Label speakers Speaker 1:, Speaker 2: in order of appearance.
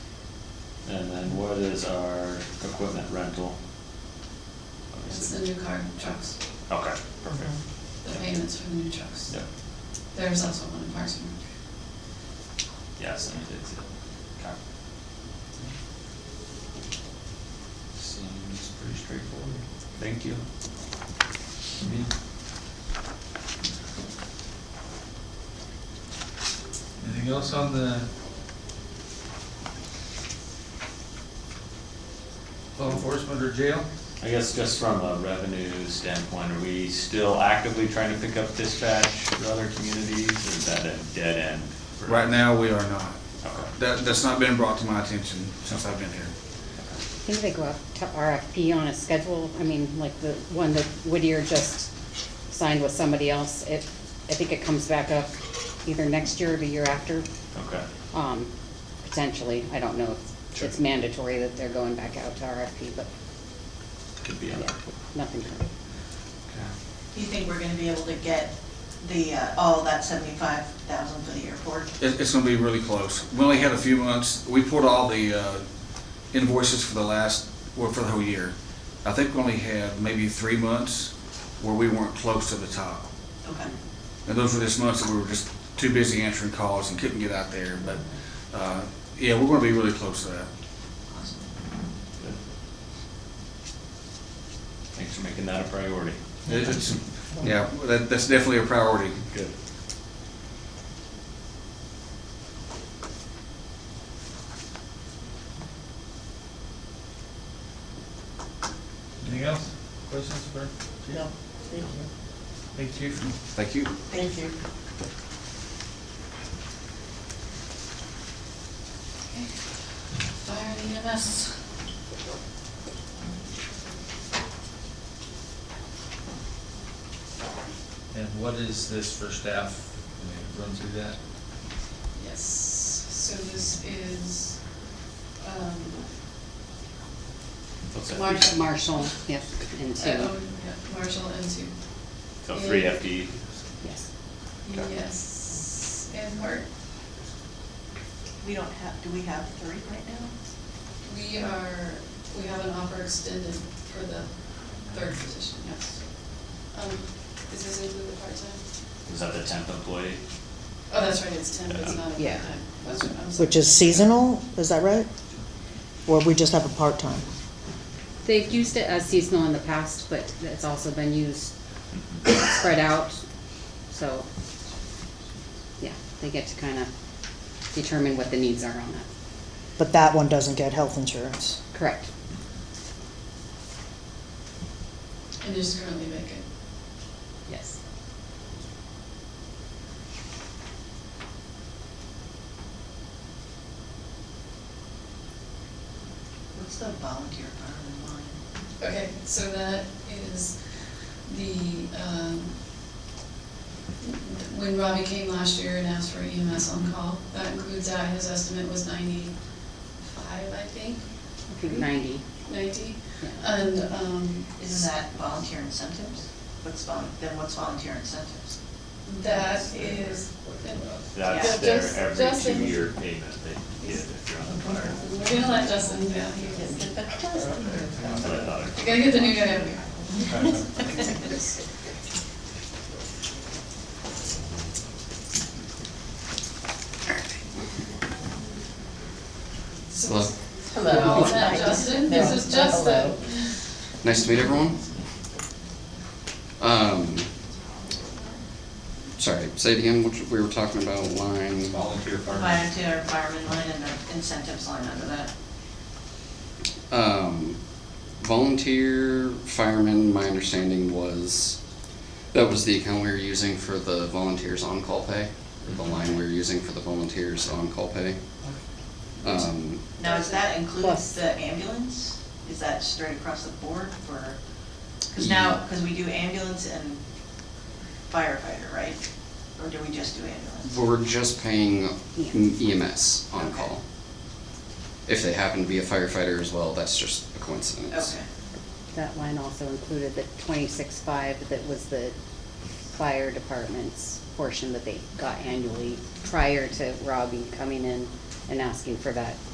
Speaker 1: And then what is our equipment rental?
Speaker 2: It's
Speaker 1: Obviously.
Speaker 2: the new car trucks,
Speaker 1: Okay, perfect.
Speaker 2: the payments for the new trucks.
Speaker 1: Yep,
Speaker 2: There's also one in Parks and Rec.
Speaker 1: yes, I did too. Okay. Seems pretty straightforward. Thank you. Me?
Speaker 3: Anything else on the? Law enforcement or jail?
Speaker 1: I guess just from a revenue standpoint, are we still actively trying to pick up dispatch for other communities, or is that a dead end? for-
Speaker 4: Right now, we are not.
Speaker 1: Okay.
Speaker 4: That, that's not been brought to my attention since I've been here.
Speaker 5: I think they go up to RFP on a schedule, I mean, like the one that Whittier just signed with somebody else, it, I think it comes back up either next year or the year after,
Speaker 1: Okay,
Speaker 5: um, potentially, I don't know if it's
Speaker 1: Sure.
Speaker 5: mandatory that they're going back out to RFP, but,
Speaker 1: could be
Speaker 5: yeah,
Speaker 1: on.
Speaker 5: nothing current.
Speaker 6: Do you think we're gonna be able to get the, uh, all that seventy-five thousand for the airport?
Speaker 4: It, it's gonna be really close. We only had a few months, we pulled all the uh, invoices for the last, well, for the whole year. I think we only had maybe three months where we weren't close to the top.
Speaker 6: Okay.
Speaker 4: And those were just months that we were just too busy answering calls and couldn't get out there, but, uh, yeah, we're gonna be really close to that.
Speaker 6: Awesome.
Speaker 1: Good. Thanks for making that a priority.
Speaker 4: It- It's, yeah, that, that's definitely a priority.
Speaker 1: Good.
Speaker 3: Anything else? Questions for? Chief?
Speaker 6: No, thank you.
Speaker 3: Thank you. Chief.
Speaker 4: Thank you.
Speaker 6: Thank you.
Speaker 2: Okay. Fire and E EMS.
Speaker 3: And what is this for staff? Can we Run through that.
Speaker 2: Yes, so this is, um,
Speaker 1: So it's
Speaker 2: Large-
Speaker 1: FD.
Speaker 5: Marshall, yep, and
Speaker 2: uh, oh,
Speaker 5: two,
Speaker 2: yeah, Marshall and Sue.
Speaker 1: So three FD,
Speaker 5: yes.
Speaker 1: Okay.
Speaker 2: Yes, and Park.
Speaker 6: We don't have, do we have three right now?
Speaker 2: We are, we have an offer extended for the third position, yes. Um, does this include the part-time?
Speaker 1: is that the tenth employee?
Speaker 2: Oh, that's right, it's ten, but it's not a
Speaker 5: Yeah.
Speaker 2: part-time. That's right, I'm sorry.
Speaker 7: Which is seasonal, is that right? Or we just have a part-time?
Speaker 5: They've used it as seasonal in the past, but it's also been used
Speaker 1: Mhm.
Speaker 5: spread out, so, yeah, they get to kind of determine what the needs are on that.
Speaker 7: But that one doesn't get health insurance.
Speaker 5: Correct.
Speaker 2: And is currently vacant.
Speaker 5: Yes.
Speaker 6: What's the volunteer fireman line?
Speaker 2: Okay, so that is the, um, when Robbie came last year and asked for EMS on call, that includes that, his estimate was ninety-five, I think,
Speaker 5: I think ninety.
Speaker 2: ninety.
Speaker 5: Yeah.
Speaker 2: And, um,
Speaker 6: Isn't that volunteer incentives? What's vol, then what's volunteer incentives?
Speaker 2: that is,
Speaker 1: That's
Speaker 2: Yeah, just-
Speaker 1: their every
Speaker 2: just in-
Speaker 1: two-year payment they get if you're on the fire.
Speaker 2: we're gonna let Justin, yeah, he can.
Speaker 1: That's what I thought.
Speaker 2: You gotta get the new guy up here. So- Hello, is that Justin? This is Justin.
Speaker 8: Nice to meet everyone. Um, sorry, say it again, which, we were talking about line,
Speaker 1: Volunteer firemen.
Speaker 6: Volunteer fireman line and the incentives line under that?
Speaker 8: um, volunteer firemen, my understanding was, that was the account we were using for the volunteers on-call pay, or the line we were using for the volunteers on-call pay. Um,
Speaker 6: Now, does that include
Speaker 5: Plus.
Speaker 6: the ambulance? Is that straight across the board for, because now, because we do ambulance and firefighter, right? Or do we just do ambulance?
Speaker 8: we're just paying E EMS
Speaker 6: Okay.
Speaker 8: on-call. If they happen to be a firefighter as well, that's just a coincidence.
Speaker 6: Okay,
Speaker 5: That line also included the twenty-six-five that was the fire department's portion that they got annually prior to Robbie coming in and asking for that